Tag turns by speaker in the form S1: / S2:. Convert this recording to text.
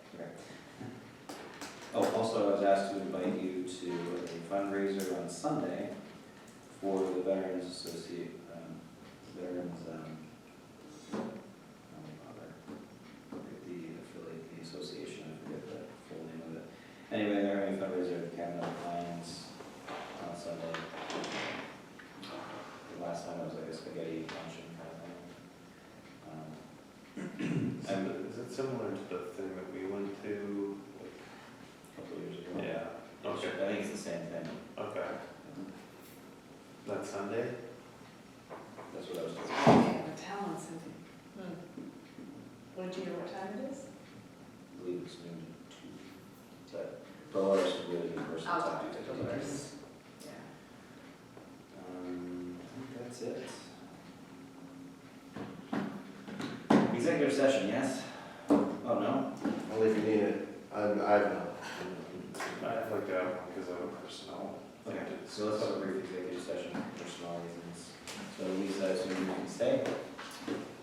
S1: Oh, also, I was asked to invite you to a fundraiser on Sunday for the Veterans Associate, um, Veterans, um, oh, bother. Forget the affiliate, the association, I forget the full name of it. Anyway, they're having a fundraiser at Cabinet Lions on Sunday. The last time it was like a spaghetti luncheon kind of thing. Um,
S2: Is
S1: And
S2: it- is it similar to the thing that we went to? uh,
S1: a couple of years ago.
S2: Yeah, okay,
S1: I think it's the same thing.
S2: okay. That Sunday?
S1: That's what I was thinking.
S3: I have a talent something. What do you know what time it is?
S1: I believe it's noon to two. Is that, but what else would be the universal
S3: I'll
S1: topic?
S3: talk to the leaders. Yeah.
S1: Um, I think that's it. Executive session, yes? Oh, no?
S4: Only if you need it, I, I have no.
S2: I'd like to have one because I have personnel.
S1: Okay, so let's have a brief executive session for personal reasons. So Lisa, I assume you can stay?